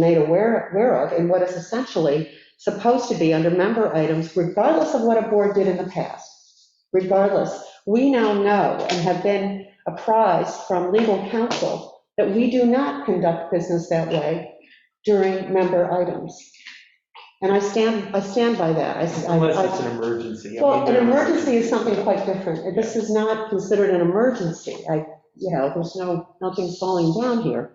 made aware, aware of in what is essentially supposed to be under member items, regardless of what a board did in the past. Regardless, we now know and have been apprised from legal counsel that we do not conduct business that way during member items. And I stand, I stand by that. I- I- Unless it's an emergency. I Well, mean, an there- emergency is something quite different. This is not considered an emergency. I, you know, there's no, nothing's falling down here.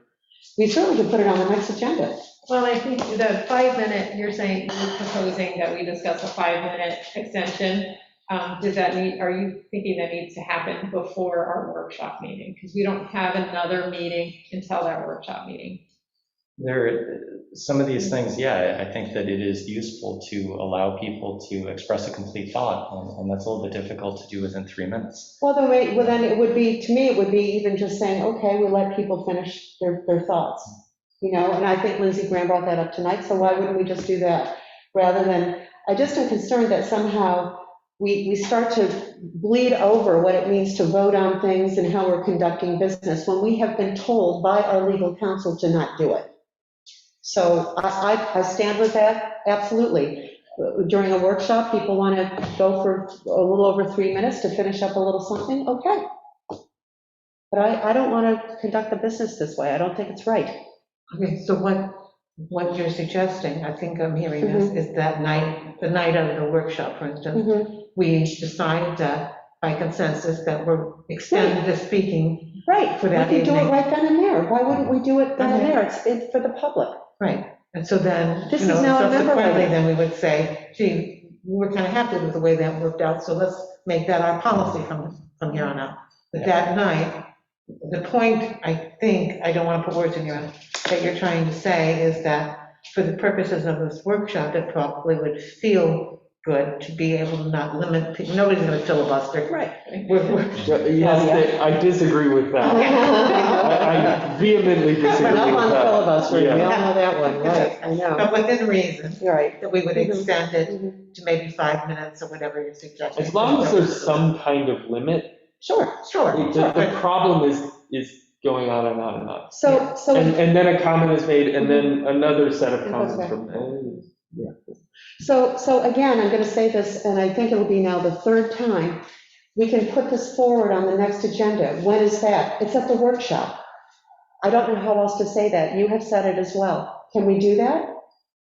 We certainly could put it on the next agenda. Well, I think the five minute, you're saying, you're proposing that we discuss a five minute extension. Um, Does that need, are you thinking that needs to happen before our workshop meeting? Because we don't have another meeting until that workshop meeting. There, some of these things, yeah, I think that it is useful to allow people to express a complete thought, and- and that's a little bit difficult to do within three minutes. Well, then, wait, well, then it would be, to me, it would be even just saying, okay, we let people finish their, their thoughts. You know, and I think Lindsey Graham brought that up tonight, so why wouldn't we just do that? Rather than, I just am concerned that somehow we, we start to bleed over what it means to vote on things and how we're conducting business when we have been told by our legal counsel to not do it. So I, I, I stand with that, absolutely during a workshop, people want to go for a little over three minutes to finish up a little something, okay. But I, I don't want to conduct the business this way. I don't think it's right. Okay, so what, what you're suggesting, I think I'm hearing this, is that night, the night of the workshop, for instance, Right, we decide that by consensus that we're extending the speaking, For we that could do it evening. right then and there. Why wouldn't we do it then and Okay. there? It's, it's for the public. right? And so then, This you is know, now a member subsequently, item. then we would say, gee, we we're kind of happy with the way that worked out, so let's make that our policy from, from here on out. But that night, the point, I think, I don't want to put words in your mouth, that you're trying to say is that for the purposes of this workshop, it probably would feel good to be able to not limit, pe- nobody's going to filibuster. Right. We're- we're- Oh, Yes, that- I disagree with that. I I vehemently disagree But with up on that. filibustering, we all Yeah. know that one, right? I know. But within reason, You're right. that we would extend it Mhm. to maybe five minutes or whatever you're suggesting. As long as there's some kind of limit, Sure. Sure, the, sure, the but problem is, is going on and on and on. So, so. And, and then a comment is made, and then another set Mm-hmm. It of goes comments back. from there. So, so again, I'm going to say this, and I think it'll be now the third time, we can put this forward on the next agenda. When is that? It's at the workshop. I don't know how else to say that. You have said it as well. Can we do that?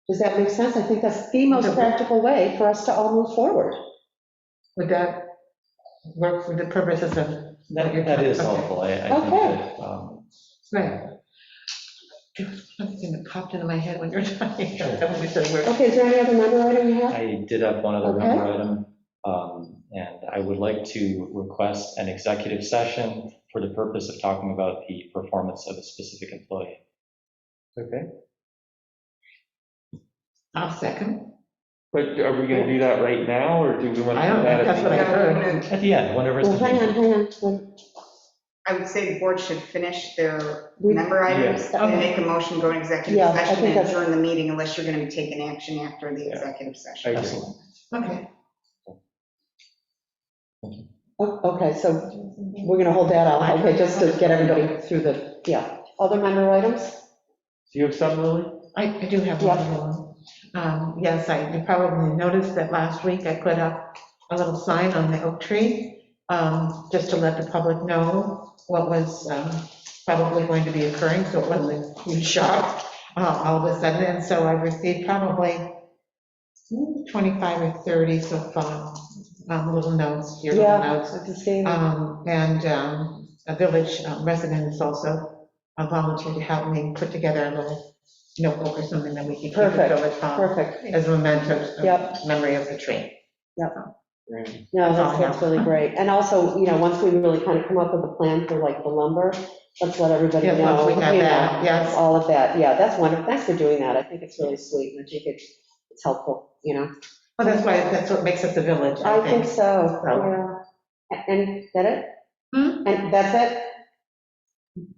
Does that make sense? I think that's the most practical way for us to all move forward. would that work for the purposes of That, that is helpful, I, I think that, um, Right. There was one thing that popped into my head when you were talking, that when we said we're, Okay, is there any other member item you have? I did have one other member Okay. item, um, and I would like to request an executive session for the purpose of talking about the performance of a specific employee. Okay, I'll second. but are we gonna do that right now, or do we want to I do don't that know, at that's the what I end? heard. At the end, whenever it's. Well, hang on, hang on. I would say the board should finish their We- member items, Yeah. and make a motion, go to executive Yeah, I session, think and that's- adjourn the meeting unless you're gonna be taking action after the Yeah. executive I session. agree. Excellent. Okay. Oh, Okay, so we're going to hold that out, okay, just to get everybody through the, yeah. Other member items? Do you have some, Lily? I, I do have one other one. Um, Yes, I, you probably noticed that last week I put up a little sign on the oak tree, um, just to let the public know what was um, probably going to be occurring, so it wasn't a huge shock uh, all of a sudden. And so I received probably hmm, 25 or 30 so far, um, little notes, your Yeah. little notes. Let's see. Um, And um, a village um, resident is also uh, volunteered to help me put together a little notebook or something that we can keep at Perfect, village hall Perfect. as a memento, Yep. of memory of the tree. No, That's all that's, I that's have. really great. And also, you know, once we really kind of come up with a plan for like the lumber, let's let everybody Yeah, know. once we have you know, that, yes. All of that, yeah, that's wonderful. Thanks for doing that. I think it's really sweet and I think it's, it's helpful, you know? Well, that's why, that's what makes us a village, I I think think. so, yeah. So- A- And, is that it? Hmm? And that's it?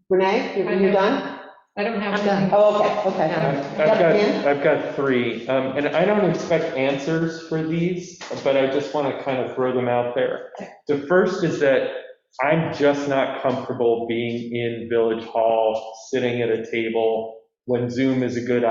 Renee, you're, you're done? I don't have I'm done. anything. Oh, okay, okay. Yeah. I've I've got, I've got three, um, and I don't expect answers for these, but I just want to kind of throw them out there. The first is that I'm just not comfortable being in Village Hall, sitting at a table when Zoom is a good option